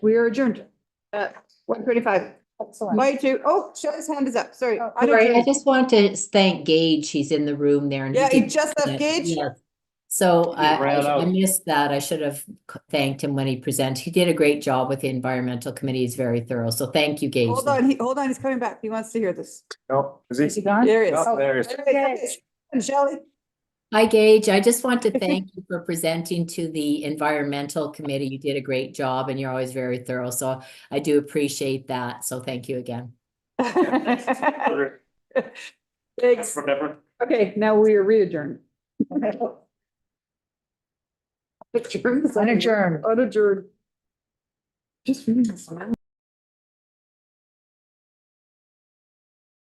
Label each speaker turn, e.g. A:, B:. A: We are adjourned at one thirty-five.
B: Excellent.
A: By two, oh, Shelley's hand is up, sorry.
B: Oh,
A: I don't-
C: Right, I just want to thank Gage, he's in the room there. and
A: Yeah,
C: he
A: he
C: did-
A: just left Gage.
C: Yes. So I, I-
D: ran
C: I
D: out.
C: missed that, I should have c- thanked him when he presented, he did a great job with the environmental committee, he's very thorough, so thank you, Gage.
A: Hold on, he, hold on, he's coming back. He wants to hear this.
D: No, is
B: Is he
D: he?
B: gone?
A: There he Oh, is.
D: No, there he is.
A: Okay, okay. Shelley,
C: Hi, Gage. I just want to thank you for presenting to the Environmental Committee. You did a great job and you're always very thorough. So I do appreciate that. So thank you again.
D: From
A: Thanks.
D: everyone.
A: Okay, now we are re-adjourned.
B: Unadjourned.
A: Unadjourned. Just reading this.